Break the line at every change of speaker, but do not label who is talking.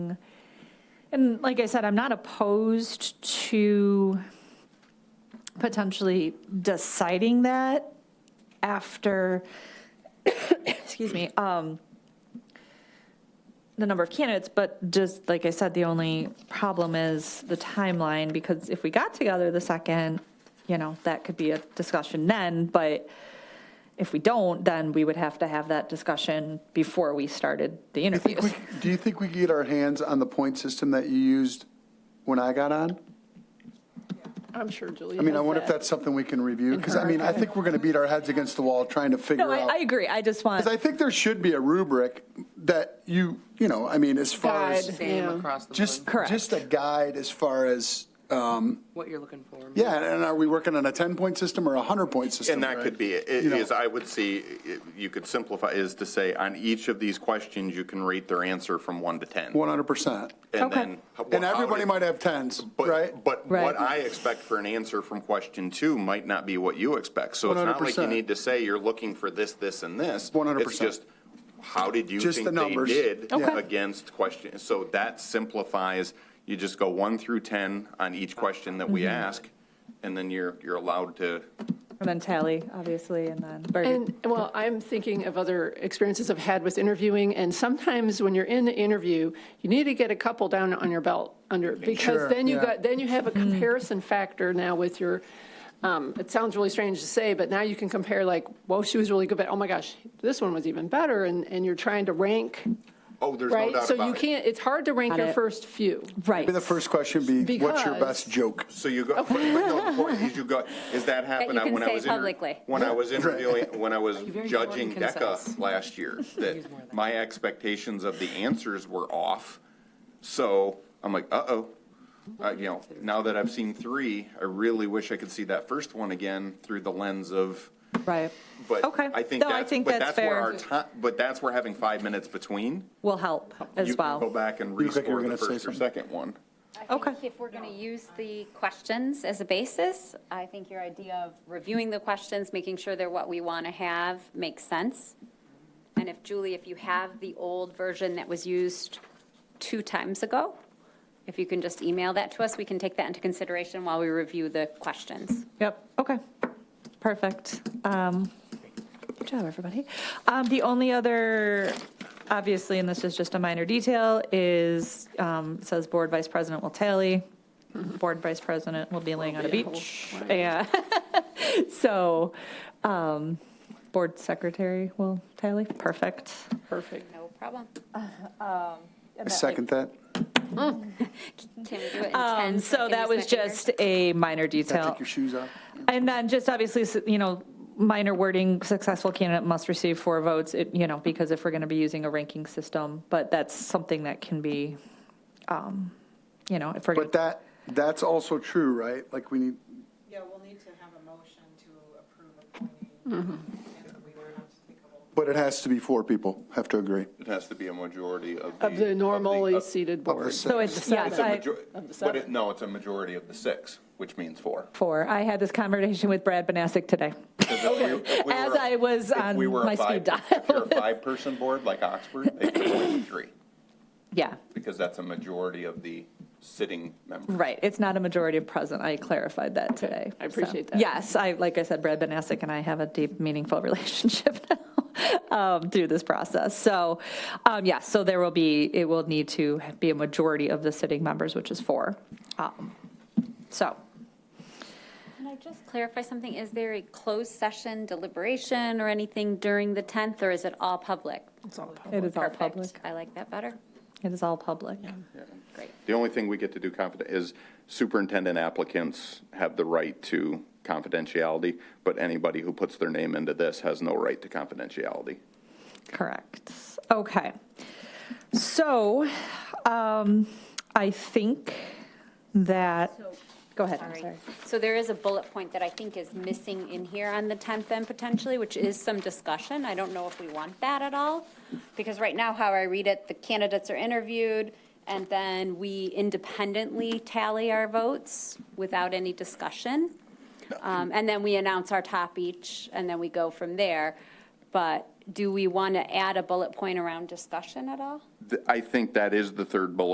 And like I said, I'm not opposed to potentially deciding that after, excuse me, um, the number of candidates, but just, like I said, the only problem is the timeline, because if we got together the second, you know, that could be a discussion then, but if we don't, then we would have to have that discussion before we started the
Do you think
interviews.
we- Do you think we could get our hands on the point system that you used when I got on?
I'm sure Julie
I mean, I
has
wonder if
that.
that's something we can review, because I mean, I think we're going to beat our heads against the wall trying to figure
No,
out.
I, I agree, I just want.
Because I think there should be a rubric that you, you know, I mean, as far as,
Guide.
same
Yeah.
across the
just,
board,
Correct.
just a guide as far as, um,
what you're looking for.
yeah, and are we working on a 10-point system or a 100-point system?
And that
right?
could be, it. It
You know.
is, I would see, it- you could simplify, is to say, on each of these questions, you can rate their answer from one to 10.
100%.
And
Okay.
then. how-
And
how
everybody
did-
might have 10s, right?
But, but
Right.
what I expect for an answer from question two might not be what you expect. So it's not like you
100%.
need to say you're looking for this, this, and this.
100%.
It's just, how did you
Just the
think they
numbers.
did
Okay.
against question? So that simplifies, you just go one through 10 on each question that we ask, and then you're, you're allowed to
And then tally, obviously, and then, or
And, well, I'm thinking of other experiences I've had with interviewing, and sometimes when you're in the interview, you need to get a couple down on your belt under,
Sure,
because then you
yeah.
got, then you have a comparison factor now with your, um, it sounds really strange to say, but now you can compare like, whoa, she was really good, but oh my gosh, this one was even better, and, and you're trying to rank,
Oh, there's no
right?
doubt
So you
about it.
can't, it's hard to rank
Got
your
it.
first few.
Right.
Maybe the first question would be, what's your
Because-
best joke?
So you go, but but no, the point is you go, is that happened
you
I-
can
when I
say
was. inter-
publicly.
When I was interviewing, when I was
very short
judging
and concise.
DECA last year, that
more of that.
my expectations of the answers were off. So I'm like, uh-oh, Uh, you know, now that I've seen three, I really wish I could see that first one again through the lens of,
right.
but
Okay.
I think
No, I
that's,
think
but
that's
that's where our
fair.
ti- but that's where having five minutes between.
Will help as
You can go
well.
back and
You think you were
rescore
gonna
the
say
first or
something?
second one.
I
Okay.
think if we're going to use the questions as a basis, I think your idea of reviewing the questions, making sure they're what we want to have, makes sense. And if, Julie, if you have the old version that was used two times ago, if you can just email that to us, we can take that into consideration while we review the questions.
Yep, okay. Perfect. Um, Good job, everybody. Um, The only other, obviously, and this is just a minor detail, is, um, it says board vice president will tally. Board vice president will be laying on a
be a whole-
beach. Yeah. So, um, board secretary will tally, perfect.
Perfect.
No problem.
I second that.
Can we do it in 10
Um,
seconds?
So that was
Mr. Hager?
just a minor
Can I
detail.
take your shoes off?
And then just obviously, s- you know, minor wording, successful candidate must receive four votes, it- you know, because if we're going to be using a ranking system, but that's something that can be, um, you know, if we're,
But
gonna-
that, that's also true, right? Like, we need,
Yeah, we'll need to have a motion to approve appointing. And we are not applicable.
but it has to be four people, have to agree.
It has to be a majority of the.
Of the normally seated
Of the
board.
so
six.
it's, yes,
It's a
I,
major-
of the
But it,
seven.
no, it's a majority of the six, which means four.
four. I had this conversation with Brad Banasek today.
Because if we- if we
As
were a-
I was
if
on
we were a
my speed
five- If you're a five-person board like Oxford, they could appoint three,
Yeah,
because that's a majority of the sitting members.
right. It's not a majority of present. I clarified that today.
I
So,
appreciate that.
Yes, I, like I said, Brad Banasek and I have a deep, meaningful relationship now um, through this process. So, um, yes, so there will be, it will need to be a majority of the sitting members, which is four. Um, So,
Can I just clarify something? Is there a closed session deliberation or anything during the 10th, or is it all public?
it is all
Perfect.
public.
I like that better.
It is all public.
Great.
The only thing we get to do confident is superintendent applicants have the right to confidentiality, but anybody who puts their name into this has no right to confidentiality.
Correct. Okay. So um, I think that, go ahead, I'm
Sorry.
sorry.
So there is a bullet point that I think is missing in here on the 10th then potentially, which is some discussion. I don't know if we want that at all, because right now, how I read it, the candidates are interviewed, and then we independently tally our votes without any discussion. Um, And then we announce our top each, and then we go from there. But do we want to add a bullet point around discussion at all?
Th- I think that is the third bullet